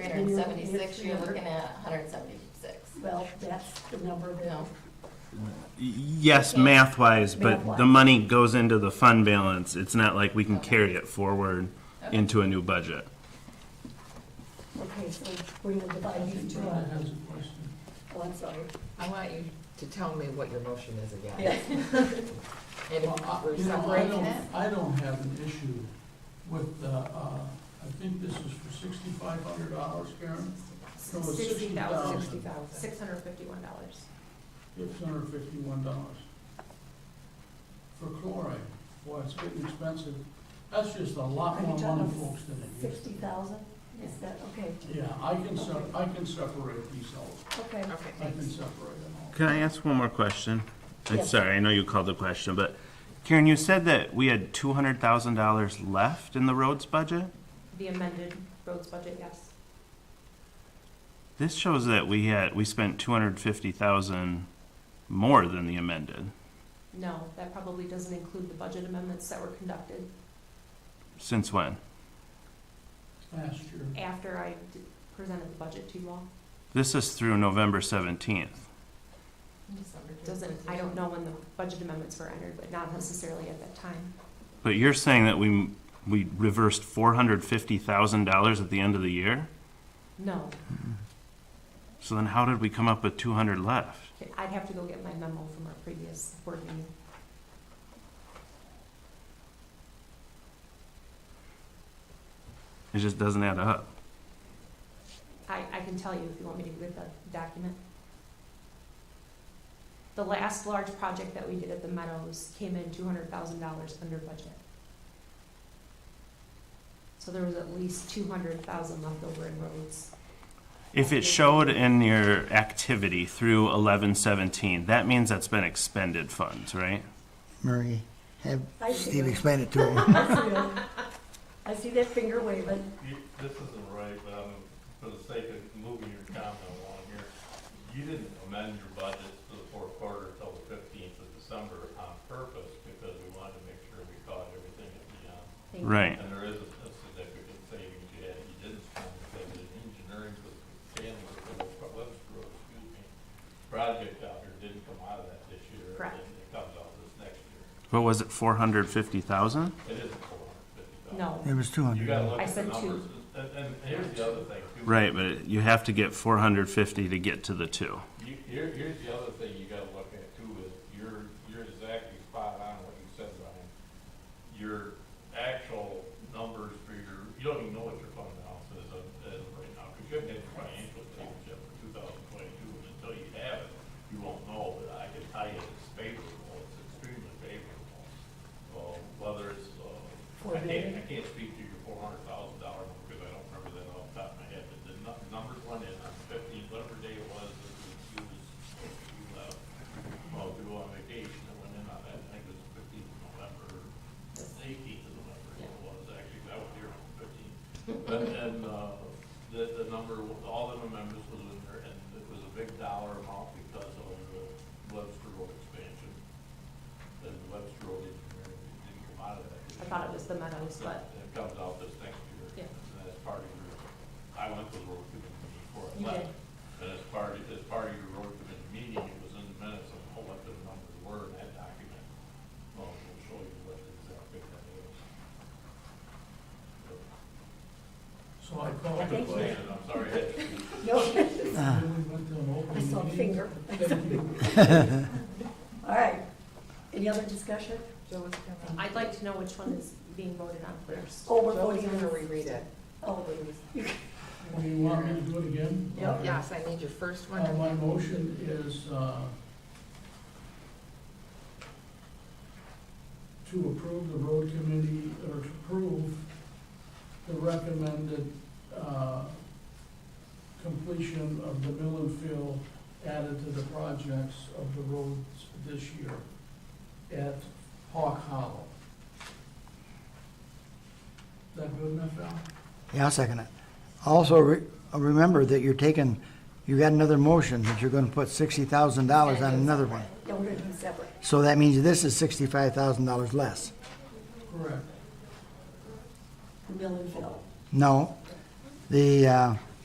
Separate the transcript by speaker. Speaker 1: hundred and seventy-six, you're looking at hundred and seventy-six.
Speaker 2: Well, that's the number that,
Speaker 1: No,
Speaker 3: Yes, math wise, but
Speaker 2: Math-wise.
Speaker 3: the money goes into the fund balance. It's not like we can carry it forward
Speaker 1: Okay.
Speaker 3: into a new budget.
Speaker 2: okay, so we're gonna divide these two
Speaker 4: Brenda
Speaker 2: up.
Speaker 4: has a question.
Speaker 2: Oh, I'm sorry.
Speaker 5: I want you to tell me what your motion is again.
Speaker 2: Yeah. uh,
Speaker 5: And
Speaker 4: Well,
Speaker 5: if
Speaker 4: I-
Speaker 5: we're
Speaker 4: you know, I
Speaker 5: separating
Speaker 4: don't,
Speaker 5: it,
Speaker 4: I don't have an issue with, the, uh, I think this is for sixty-five hundred dollars, Karen? No, it's
Speaker 6: Sixty
Speaker 5: sixty
Speaker 6: thousand,
Speaker 5: thousand.
Speaker 6: six hundred fifty-one dollars.
Speaker 4: Six hundred fifty-one dollars. For chloride, boy, it's getting expensive. That's just a lot
Speaker 2: Are you
Speaker 4: more
Speaker 2: talking
Speaker 4: money folks than it used
Speaker 2: Sixty thousand, is that, okay,
Speaker 4: to. Yeah, I can sep, I can separate these out.
Speaker 2: okay.
Speaker 5: okay,
Speaker 4: I can
Speaker 5: thanks.
Speaker 4: separate them out.
Speaker 3: Can I ask one more question? I'm
Speaker 2: Yes.
Speaker 3: sorry, I know you called the question, but Karen, you said that we had two hundred thousand dollars left in the roads budget?
Speaker 6: The amended roads budget, yes.
Speaker 3: This shows that we had, we spent two hundred fifty thousand more than the amended.
Speaker 6: No, that probably doesn't include the budget amendments that were conducted
Speaker 3: Since when?
Speaker 4: Last year,
Speaker 6: after I d- presented the budget to you all.
Speaker 3: This is through November seventeenth.
Speaker 6: Doesn't, I don't know when the budget amendments were entered, but not necessarily at that time.
Speaker 3: But you're saying that we, we reversed four hundred fifty thousand dollars at the end of the year?
Speaker 6: No,
Speaker 3: So then how did we come up with two hundred left?
Speaker 6: I'd have to go get my memo from our previous board meeting.
Speaker 3: It just doesn't add up.
Speaker 6: I, I can tell you if you want me to get the document. The last large project that we did at the Meadows came in two hundred thousand dollars under budget. So there was at least two hundred thousand left over in roads.
Speaker 3: If it showed in your activity through eleven seventeen, that means that's been expended funds, right?
Speaker 7: Marie, have
Speaker 2: I see
Speaker 7: Steve
Speaker 2: it.
Speaker 7: explain it to him.
Speaker 2: I see it. I see that finger waving.
Speaker 8: You, this isn't right, but I'm, for the sake of moving your comment along here, you didn't amend your budget for the fourth quarter until the fifteenth of December on purpose, because we wanted to make sure we caught everything at the end.
Speaker 6: Thank you.
Speaker 3: Right.
Speaker 8: And there is a a significant savings you had, you didn't spend, because the engineering was, Dan was, Webster Road, excuse me, project out here didn't come out of that this year.
Speaker 6: Correct.
Speaker 8: It it comes out this next year.
Speaker 3: What was it, four hundred fifty thousand?
Speaker 8: It isn't four hundred fifty
Speaker 6: No,
Speaker 8: thousand.
Speaker 7: It was two
Speaker 8: You
Speaker 7: hundred.
Speaker 8: gotta look
Speaker 6: I
Speaker 8: at the
Speaker 6: said two.
Speaker 8: numbers, and, and here's the other thing too.
Speaker 3: Right, but you have to get four hundred fifty to get to the two.
Speaker 8: You, here, here's the other thing you gotta look at too, is you're, you're exactly spot on what you said, Ryan. Your actual numbers for your, you don't even know what your fund balance is of, as of right now, because you haven't had the financial statements yet for two thousand twenty-two, and until you have it, you won't know, but I can tell you it's favorable, it's extremely favorable. Uh, whether it's, uh,
Speaker 2: Four
Speaker 8: I can't,
Speaker 2: billion?
Speaker 8: I can't speak to your four hundred thousand dollar, because I don't remember that off the top of my head, but the nu- numbers went in on fifteen, whatever day it was, that you was, you left. Well, we were on vacation, it went in on that, I think it was fifteenth of November, eighteenth of November, is what it was, actually, that was here on fifteenth. And, and, uh, the, the number, all the members was in there, and it was a big dollar amount because of the Webster Road expansion. And Webster Road engineering didn't come out of that.
Speaker 6: I thought it was the Meadows, but
Speaker 8: It comes out this next
Speaker 6: Yeah.
Speaker 8: year. And that's part of your, I went to the road committee meeting before I
Speaker 6: You
Speaker 8: left. And as part, of- as part of your road committee meeting, it was in the minutes of what the numbers were in that document. Well, we'll show you what the exact figure that is.
Speaker 4: So I called
Speaker 2: Thank you.
Speaker 4: it,
Speaker 8: But, I'm sorry, I-
Speaker 2: No,
Speaker 7: Uh,
Speaker 4: then we went to an
Speaker 2: I saw a
Speaker 4: open meeting.
Speaker 2: finger.
Speaker 4: Thank you.
Speaker 2: All right. Any other discussion?
Speaker 6: I'd like to know which one is being voted on first.
Speaker 2: Oh, we're voting on the
Speaker 5: reread it.
Speaker 2: Oh, goodness.
Speaker 4: Do you want me to do it again?
Speaker 2: Yep.
Speaker 5: Yes, I need your first one.
Speaker 4: Uh, my motion is, uh, to approve the road committee, or to approve the recommended, uh, completion of the mill and fill added to the projects of the roads this year at Hawk Hollow. Is that good enough, Al?
Speaker 7: Yeah, I'll second it. Also, re- remember that you're taking, you got another motion that you're gonna put sixty thousand dollars on another one.
Speaker 2: No, we're doing separate.
Speaker 7: So that means this is sixty-five thousand dollars less.
Speaker 4: Correct.
Speaker 2: The mill and fill.
Speaker 7: No, the, uh,